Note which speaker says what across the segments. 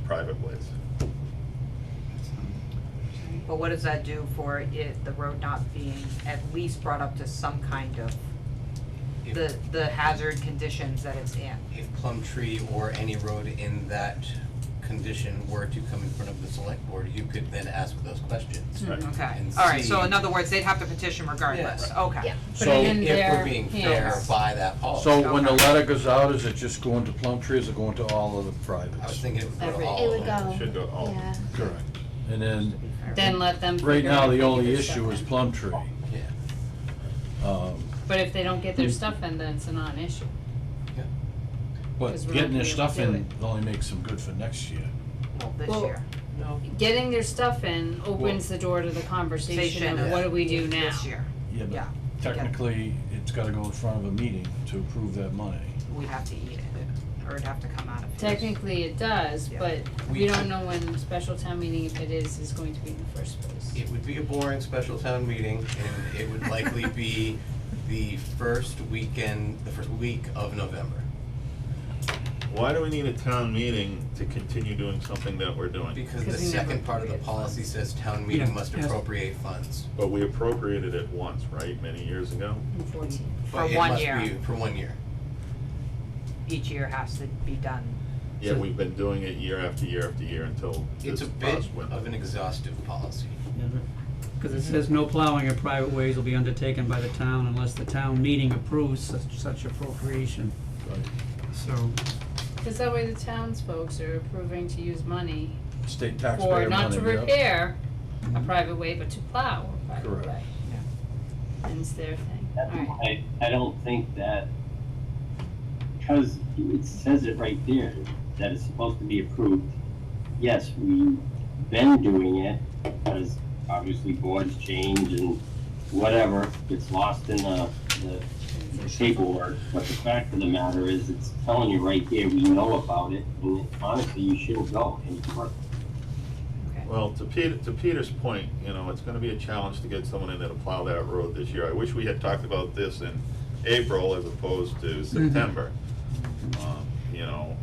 Speaker 1: private ways.
Speaker 2: But what does that do for it, the road not being at least brought up to some kind of,
Speaker 3: If-
Speaker 2: the, the hazard conditions that it's in?
Speaker 3: If Plum Tree or any road in that condition were to come in front of the select board, you could then ask those questions.
Speaker 1: Right.
Speaker 2: Okay,
Speaker 3: And
Speaker 2: alright, so
Speaker 3: see-
Speaker 2: in other words, they'd have to petition regardless,
Speaker 3: Yes.
Speaker 2: okay.
Speaker 4: Yeah.
Speaker 5: So-
Speaker 4: Put it in
Speaker 3: If
Speaker 4: their
Speaker 3: we're being fair
Speaker 4: hands.
Speaker 3: by that
Speaker 4: Oh,
Speaker 3: policy.
Speaker 5: So when the
Speaker 2: Okay.
Speaker 5: letter goes out, is it just going to Plum Tree, or is it going to all of the
Speaker 3: I was
Speaker 5: privates?
Speaker 3: thinking it would go to
Speaker 4: Every-
Speaker 3: all
Speaker 6: It
Speaker 3: of
Speaker 6: would
Speaker 3: them.
Speaker 6: go.
Speaker 1: Should go to all of them.
Speaker 6: Yeah.
Speaker 5: Correct. And then,
Speaker 4: Then let them.
Speaker 5: right
Speaker 4: figure
Speaker 5: now,
Speaker 4: out if
Speaker 5: the
Speaker 4: they get
Speaker 5: only
Speaker 4: their
Speaker 5: issue
Speaker 4: stuff
Speaker 5: is
Speaker 4: in.
Speaker 5: Plum Tree.
Speaker 3: Yeah.
Speaker 5: Um,
Speaker 4: But if they don't get their stuff in, then it's a non-issue.
Speaker 5: But
Speaker 4: 'Cause we're not
Speaker 5: getting their
Speaker 4: gonna be able
Speaker 5: stuff
Speaker 4: to do
Speaker 5: in only makes them good for next year.
Speaker 2: Well, this
Speaker 4: Well,
Speaker 2: year,
Speaker 4: Getting their stuff in opens the door to the conversation
Speaker 2: Station,
Speaker 4: of what do we do now?
Speaker 2: this year,
Speaker 5: Yeah,
Speaker 2: yeah,
Speaker 5: but technically, it's gotta go in front of a meeting to approve that money.
Speaker 2: we'd have to eat it, or it'd have to come out of here.
Speaker 4: Technically, it does,
Speaker 2: Yeah.
Speaker 4: but we
Speaker 3: We
Speaker 4: don't
Speaker 3: could-
Speaker 4: know when special town meeting, if it is, is going to be in the first place.
Speaker 3: It would be a boring special town meeting, and it would likely be the first weekend, the first week of November.
Speaker 1: Why do we need a town meeting to continue doing something that we're doing?
Speaker 3: Because the
Speaker 4: Because we never
Speaker 3: second part of the
Speaker 4: appropriate
Speaker 3: policy says town meeting must appropriate funds.
Speaker 1: But we appropriated it once, right, many years ago?
Speaker 4: In fourteen.
Speaker 3: But
Speaker 2: For
Speaker 3: it
Speaker 2: one
Speaker 3: must
Speaker 2: year.
Speaker 3: be For one year.
Speaker 2: Each year has to be done,
Speaker 1: Yeah,
Speaker 3: So-
Speaker 1: we've been doing it year after year after year until this
Speaker 3: It's a bit
Speaker 1: past winter.
Speaker 3: of an exhaustive policy.
Speaker 7: Because it says no plowing of private ways will be undertaken by the town unless the town meeting approves such, such appropriation. So,
Speaker 4: Cause that way the townsfolks are approving to use money
Speaker 5: State
Speaker 4: for
Speaker 5: taxpayer money,
Speaker 4: not to
Speaker 5: yep. Mm-hmm.
Speaker 4: repair a private way, but to plow a private
Speaker 5: Correct.
Speaker 4: way. And it's their thing,
Speaker 8: That's
Speaker 4: alright.
Speaker 8: why I don't think that, because it says it right there, that it's supposed to be approved. Yes, we've been doing it, because obviously boards change and whatever, it's lost in the, the paperwork. But the fact of the matter is, it's telling you right there, we know about it, and honestly, you shouldn't go any further.
Speaker 1: Well, to Peter, to Peter's point, you know, it's gonna be a challenge to get someone in there to plow that road this year. I wish we had talked about this in April as opposed to September. Um, You know,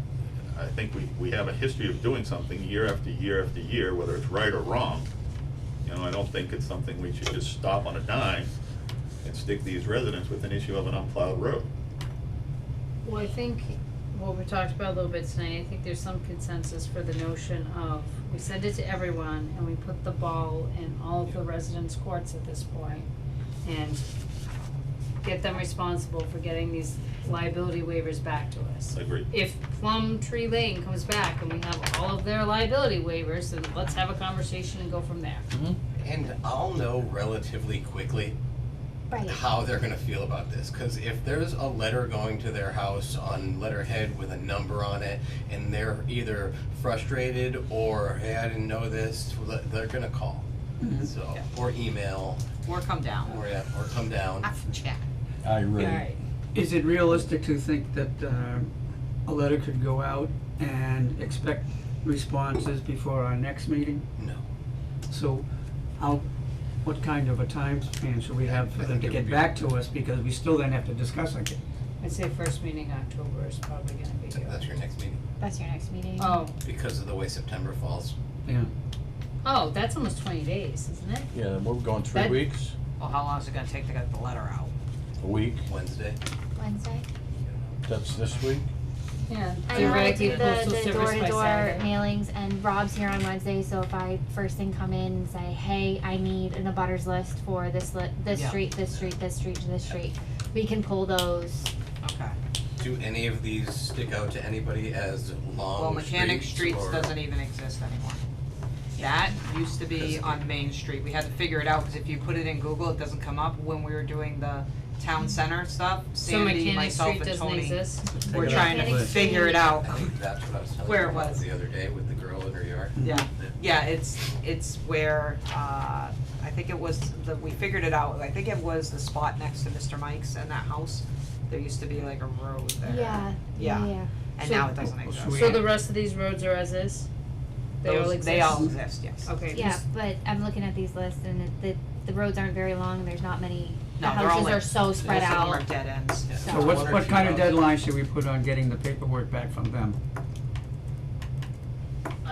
Speaker 1: I think we, we have a history of doing something year after year after year, whether it's right or wrong. You know, I don't think it's something we should just stop on a dime and stick these residents with an issue of an unplowed road.
Speaker 4: Well, I think what we talked about a little bit tonight, I think there's some consensus for the notion of, we send it to everyone and we put the ball in all of the residents' courts at this point And get them responsible for getting these liability waivers back to us.
Speaker 1: Agreed.
Speaker 4: If Plum Tree Lane comes back and we have all of their liability waivers, then let's have a conversation and go from there.
Speaker 3: And I'll know relatively quickly
Speaker 6: Right.
Speaker 3: how they're gonna feel about this, cause if there's a letter going to their house on letterhead with a number on it, and they're either frustrated or, hey, I didn't know this, le- they're gonna call.
Speaker 2: Mm-hmm.
Speaker 3: So,
Speaker 2: Yeah.
Speaker 3: or email,
Speaker 2: or come down,
Speaker 3: or, yeah, or come down.
Speaker 2: F check.
Speaker 5: I agree.
Speaker 4: Alright,
Speaker 7: is it realistic to think that, uh, a letter could go out and expect responses before our next meeting?
Speaker 3: No.
Speaker 7: So, how, what kind of a time span should we have for
Speaker 3: I
Speaker 7: them
Speaker 3: think
Speaker 7: to
Speaker 3: it would
Speaker 7: get
Speaker 3: be-
Speaker 7: back to us, because we still then have to discuss again?
Speaker 4: I'd say first meeting October is probably gonna be
Speaker 3: So
Speaker 4: good.
Speaker 3: That's your next meeting,
Speaker 6: That's your next meeting.
Speaker 4: Oh,
Speaker 3: because of the way September falls.
Speaker 7: Yeah,
Speaker 4: oh, that's almost twenty days, isn't it?
Speaker 5: Yeah, we're going three
Speaker 4: That-
Speaker 5: weeks,
Speaker 2: Well, how long is it gonna take to get the letter out?
Speaker 5: a week,
Speaker 3: Wednesday.
Speaker 6: Wednesday.
Speaker 5: that's this week.
Speaker 4: Yeah.
Speaker 6: I normally do
Speaker 4: Theoretically,
Speaker 6: the,
Speaker 4: postal
Speaker 6: the
Speaker 4: service by
Speaker 6: door-to-door
Speaker 4: Saturday.
Speaker 6: mailings, and Rob's here on Wednesday, so if I first thing come in and say, hey, I need an abutters list for this li- this
Speaker 2: Yeah.
Speaker 6: street, this street, this street, and this street, we can pull those.
Speaker 2: Okay,
Speaker 3: Do any of these stick out to anybody as
Speaker 2: well,
Speaker 3: long
Speaker 2: Mechanic Streets
Speaker 3: or-
Speaker 2: doesn't even exist anymore. That used to be on Main Street, we had to figure it out, cause if you put it in Google, it doesn't come up when we were doing the town center stuff,
Speaker 4: So
Speaker 2: Sandy,
Speaker 4: Mechanic
Speaker 2: myself
Speaker 4: Street
Speaker 2: and Tony.
Speaker 4: doesn't exist?
Speaker 7: Just
Speaker 2: We're
Speaker 7: take it out.
Speaker 2: trying to
Speaker 6: Mechanic
Speaker 2: figure it
Speaker 6: Street.
Speaker 2: out.
Speaker 3: I think that's what I was telling
Speaker 2: Where
Speaker 3: you
Speaker 2: it
Speaker 3: about
Speaker 2: was.
Speaker 3: the other day with the girl in her yard.
Speaker 2: Yeah, yeah, it's, it's where, uh, I think it was, the, we figured it out, I think it was the spot next to Mr. Mike's and that house. There used to be like a road there.
Speaker 6: Yeah.
Speaker 2: Yeah.
Speaker 6: Yeah.
Speaker 2: And
Speaker 4: So-
Speaker 2: now it doesn't exist.
Speaker 7: so we-
Speaker 4: So the rest of these roads are as is? They all
Speaker 2: Those-
Speaker 4: exist?
Speaker 2: They all exist, yes.
Speaker 4: Okay.
Speaker 6: Yeah,
Speaker 4: just-
Speaker 6: but I'm looking at these lists, and it, the the roads aren't very long. There's not many. The
Speaker 2: No, they're all
Speaker 6: houses
Speaker 2: like-
Speaker 6: are so spread
Speaker 2: Most of them are
Speaker 6: out.
Speaker 2: dead ends.
Speaker 3: Yeah.
Speaker 6: So-
Speaker 7: So what's,
Speaker 3: Wonder if
Speaker 7: what
Speaker 3: you
Speaker 7: kind of
Speaker 3: know-
Speaker 7: deadline should we put on getting the paperwork back from them?